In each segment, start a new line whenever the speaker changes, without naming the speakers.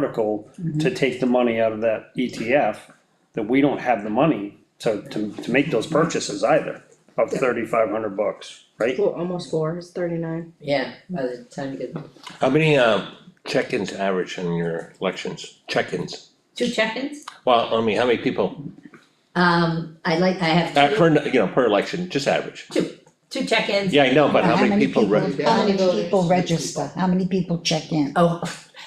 article
Mm-hmm.
to take the money out of that ETF, that we don't have the money to, to, to make those purchases either of thirty-five hundred bucks, right?
Well, almost four, it's thirty-nine.
Yeah, by the time you get,
How many, um, check-ins average in your elections, check-ins?
two check-ins,
Well, I mean, how many people,
um, I like, I
uh,
have two,
per, you know, per election, just average?
two check-ins.
Yeah, I know, but how many people, re-
How many
Yeah.
people register, how many people check in?
Oh,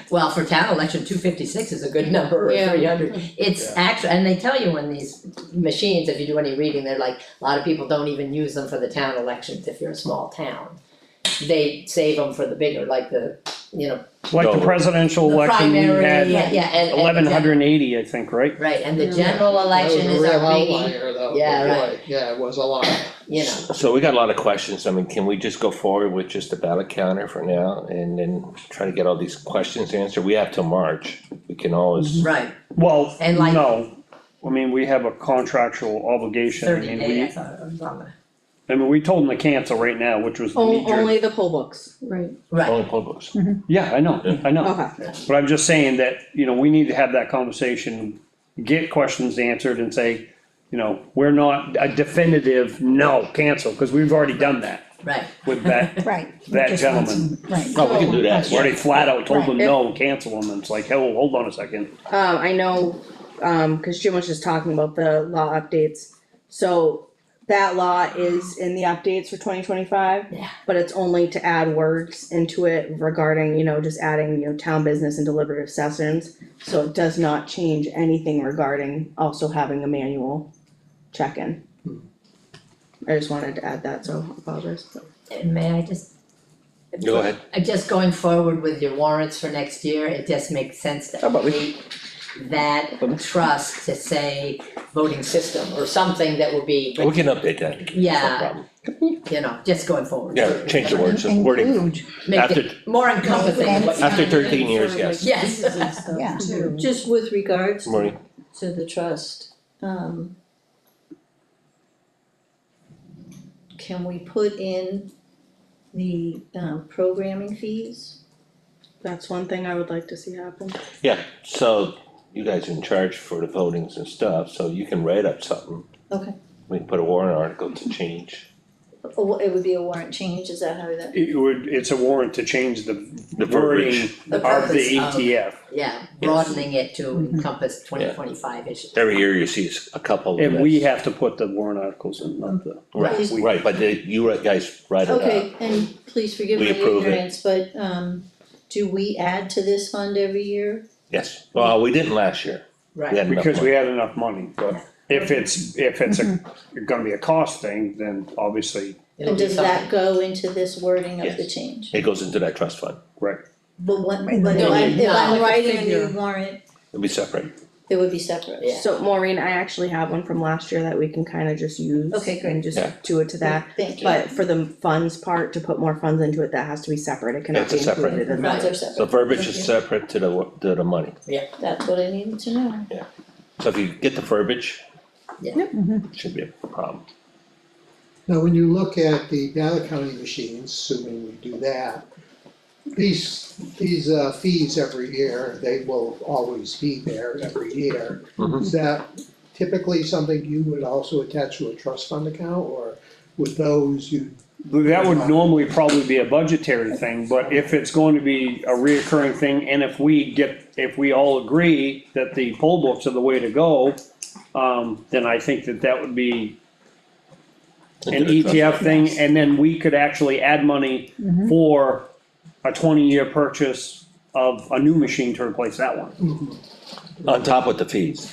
well, for town election, two fifty-six is a good number, or
Yeah.
three hundred, it's actually, and they tell you when these machines, if you do any reading, they're like, a lot of people don't even use them for the town elections if you're a small town. They save them for the bigger, like the, you know,
Like the
No.
presidential
the
election, we
primary, yeah,
had
yeah, and- and. the gen-
eleven hundred and eighty, I think, right?
Right, and the
Yeah.
general election is a biggie, Yeah, right.
Yeah, it was a lot.
you know,
so we got a lot of questions, I mean, can we just go forward with just a ballot counter for now? And then try to get all these questions answered, we have till March, we can always,
right,
Well,
And like-
no, I mean, we have a contractual obligation, I
thirty
mean,
day, I
we,
thought it was on the,
I mean, we told them to cancel right now, which was the
Oh,
knee jerk.
Oh, Only the poll books, right,
right,
only poll books.
Yeah, I know, I know.
okay.
But I'm just saying that, you know, we need to have that conversation, get questions answered and say, you know, we're not a definitive, no, cancel, cause we've already done that
right,
with that.
Right. we
That
just want
gentleman.
some- Right.
Oh, we can do that,
We Already flat out told them,
Right.
no, cancel them, and it's like, hell, hold on a second.
Um, I know, um, cause Jim was just talking about the law updates. So that law is in the updates for twenty twenty-five.
Yeah.
But it's only to add words into it regarding, you know, just adding, you know, town business and deliberative sessions. So it does not change anything regarding also having a manual check-in. I just wanted to add that, so apologize.
and may I just
Go ahead.
Uh, just going forward with your warrants for next year, it just makes sense to update that trust to say voting system or something that will be,
We can update that, no
yeah,
problem.
you know, just going forward.
Yeah, change the words, the wording,
Include,
Make
after,
it more encompassing,
Yeah,
but-
after thirteen years, yes,
yes,
yeah.
Just with regards to-
Maureen.
to the trust, um. Can we put in the um programming fees?
That's one thing I would like to see happen.
Yeah, so you guys are in charge for the votings and stuff, so you can write up something.
Okay.
We can put a warrant article to change
Oh, it would be a warrant change, is that how that?
It would, it's a warrant to change the
the verbiage.
wording
The
of the E
purpose of-
ETF.
yeah, broadening it to
Mm-hmm.
encompass twenty twenty-five issues.
Every year you see a couple of
And we
that.
have to put the warrant articles in, not the.
Right,
Is-
right, but the- you guys write it up.
Okay, and please forgive my
Uh, We approve it.
ignorance, but um do we add to this fund every year?
Yes, well, we didn't last year, we
Right,
had enough
Because we
money.
had enough money, but if it's, if it's a,
Mm-hmm.
gonna be a cost thing, then obviously,
it'll
And
be
does
something,
that go into this wording of the
Yes.
change?
It goes into that trust fund,
But what,
Right,
but if
no,
I if
no,
I'm
like a
writing a
figure.
new warrant,
it'll be separate,
it would be separate.
Yeah.
So Maureen, I actually have one from last year that we can kind of just use.
Okay, great.
And just
Yeah.
do it to that,
Thank you.
but for the funds part, to put more funds into it, that has to be separate, it cannot
It's
be
a separate-
included in
Funds
that.
are
the
separate,
verbiage is separate to the, wo- to the money.
that's what I needed to know.
So if you get the verbiage.
Yeah.
Mm-hmm.
Should be a problem,
Now, when you look at the ballot counting machines, assuming we do that, these, these uh, fees every year, they will always be there every year.
Mm-hmm.
Mhm.
Is that typically something you would also attach to a trust fund account, or with those you
that would normally probably be a budgetary thing, but if it's going to be a reoccurring thing, and if we get, if we all agree that the poll books are the way to go, um, then I think that that would be an
Into the trust
ETF thing, and then we could actually add money for a twenty-year purchase of a new machine to replace that one.
on top of the fees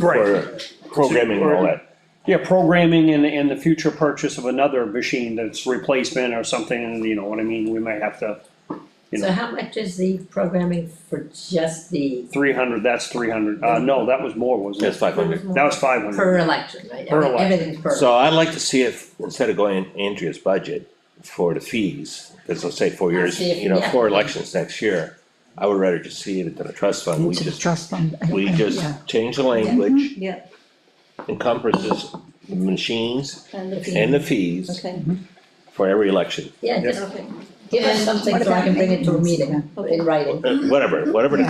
for programming and all that,
Yeah, programming and, and the future purchase of another machine that's replacement or something, and you know what I mean, we might have to, you
so
know,
how much is the programming for just the
three hundred, that's three hundred, uh, no, that was more, wasn't
that's
it?
five hundred.
That was five hundred,
per election, right,
Per election.
everything's per,
So I'd like to see if, instead of going in Andrea's budget for the fees, because let's say four years,
see if-
you know,
yeah.
four elections next year. I would rather just see it than a trust fund, we
Into the
just,
trust fund. I-
we
I-
just
yeah.
change the language.
Yeah.
Encompasses the machines
And the
and
fee,
the fees
okay,
for every election,
yeah, just
okay,
Give us
And
something
What
so I
about
can bring it to a
maintenance?
meeting in writing.
whatever, whatever the
Yeah.